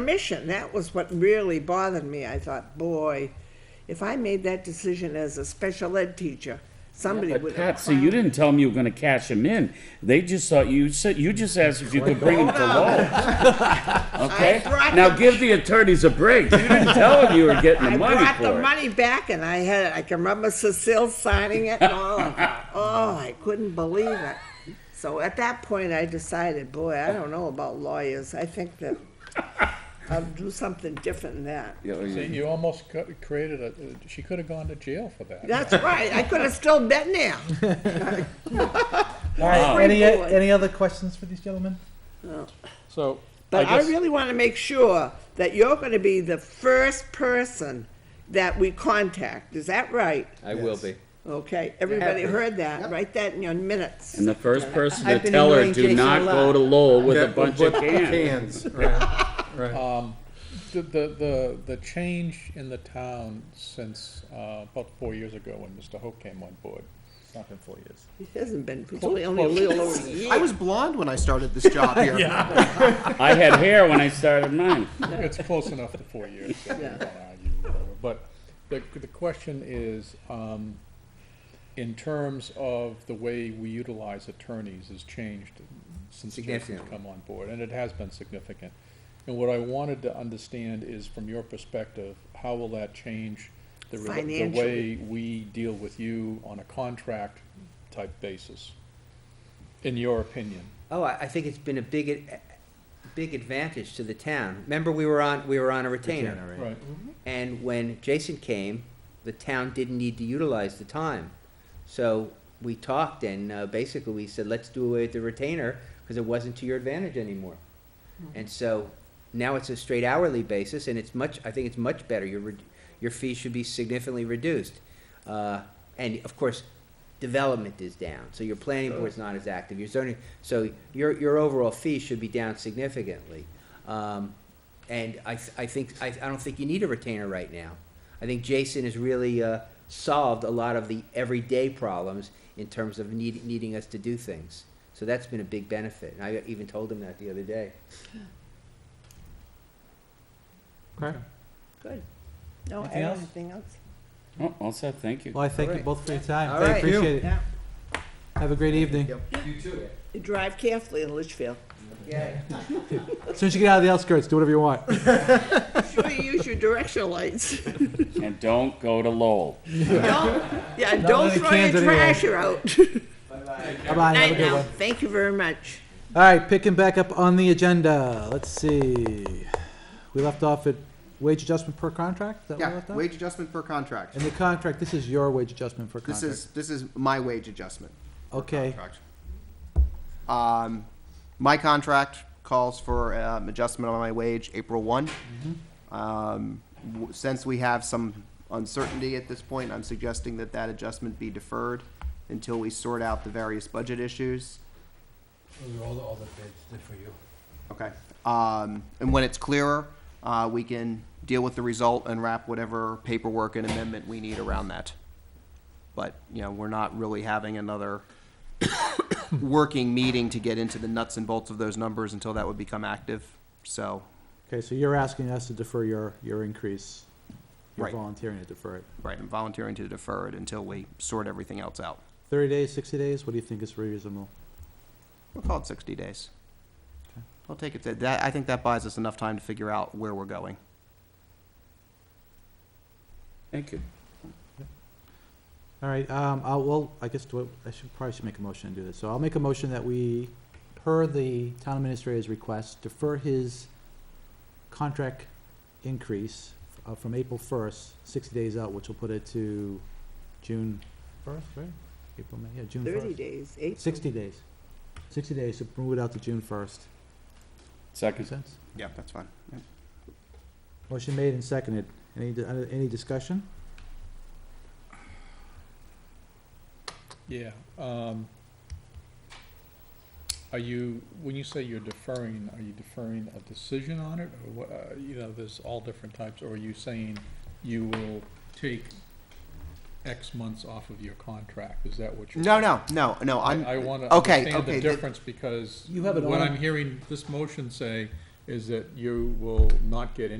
permission. That was what really bothered me. I thought, boy, if I made that decision as a special ed teacher, somebody But would have. Patsy, you didn't tell them you were gonna cash them in. They just thought, you said, you just asked if you could bring them to Lowell's. Okay? I brought Now the- give the attorneys a break. You didn't tell them you were getting I the money brought the for it. money back and I had, I can remember Cecile signing it and all. of that. Oh, I couldn't believe it. So at that point, I decided, boy, I don't know about lawyers. I think that I'll do something different than that. Yeah, yeah. See, you almost co- created a, uh, she could have gone to jail for that. That's right. I could have still been there. All right, Free any, board. any other questions for these gentlemen? So, I But I guess, really want to make sure that you're going to be the first person that we contact. Is that right? I will be. Okay, everybody Yeah. heard that. Yep. Write that in your minutes. And the first person to I've been tell her, ignoring do Jason not a lot." go to Lowell with a That will bunch of put cans. Cans, right, right. um, the, the, the, the change in the town since, uh, about four years ago when Mr. Hope came on board. It's not been four years. It hasn't been, it's only only a little over a year. I was blonde when I started this job here. I had hair when I started mine. It's close enough to four years. so we Yeah. don't argue, whatever. But the, the question is, um, in terms of the way we utilize attorneys has changed since Jason's Significantly. come on board, and it has been significant. And what I wanted to understand is, from your perspective, how will that change the, rela- the Financially. way we deal with you on a contract type basis? In your opinion? Oh, I, I think it's been a big, ad- big advantage to the town. Remember, we were on, we were on a retainer. Right. And when Jason came, the town didn't need to utilize the time. So we talked and uh, basically we said, let's do away with the retainer because it wasn't to your advantage anymore. And so now it's a straight hourly basis and it's much, I think it's much better. Your, re- your fees should be significantly reduced. Uh, And of course, development is down, so your planning board's not as active, your zoning, so your, your overall fee should be down significantly. Um, and I, th- I think, I, I don't think you need a retainer right now. I think Jason has really, uh, solved a lot of the everyday problems in terms of need, needing us to do things. So that's been a big benefit, and I even told him that the other day. Okay. Good. No, I Anything have else? anything else? Oh, also, thank you. Well, I thank you Alright. both for your time. All I right. appreciate it. Have a great evening. You too. You Drive carefully in Litchfield. Yeah. As soon as you get out of the outskirts, do whatever you want. Sure you use your directional lights. And don't go to Lowell. Don't, yeah, don't many throw cans your anyway. trash out. Bye-bye, have a Night good now. one. Thank you very much. All right, picking back up on the agenda. Let's see. We left off at wage adjustment per contract? Is that what we Yeah, left off? wage adjustment per contract. And the contract, this is your wage adjustment per This contract. is, this is my wage adjustment. Okay, contract. Um, my contract calls for, um, adjustment on my wage April one. Um, w- since we have some uncertainty at this point, I'm suggesting that that adjustment be deferred until we sort out the various budget issues. Those are all, the- all the bids did for you. Okay. Um, and when it's clearer, uh, we can deal with the result and wrap whatever paperwork and amendment we need around that. But, you know, we're not really having another working meeting to get into the nuts and bolts of those numbers until that would become active, so, okay, so you're asking us to defer your, your increase. You're Right. volunteering to defer it. right, I'm volunteering to defer it until we sort everything else out. Thirty days, sixty days, what do you think is reasonable? We'll call it sixty days. I'll take it, that- that, I think that buys us enough time to figure out where we're going. Thank you. All right, um, I'll, well, I guess, do I I should, probably should make a motion to do this. So I'll make a motion that we, per the town administrator's request, defer his contract increase uh, from April first, sixty days out, which will put it to June first, right? April, May, yeah, June first. Thirty days, eight. Sixty days. Sixty days, so move it out to June first. Makes Second. sense? Yeah, that's fine. Yep. Motion made and seconded. Any, di- uh, any discussion? Yeah, um, are you, when you say you're deferring, are you deferring a decision on it, or what, uh, you know, there's all different types, or are you saying you will take X months off of your contract, is that what you're? No, no, no, no, I, I'm, I wanna okay, understand okay, the the- difference, because You have it what on- I'm hearing this motion say is that you will not get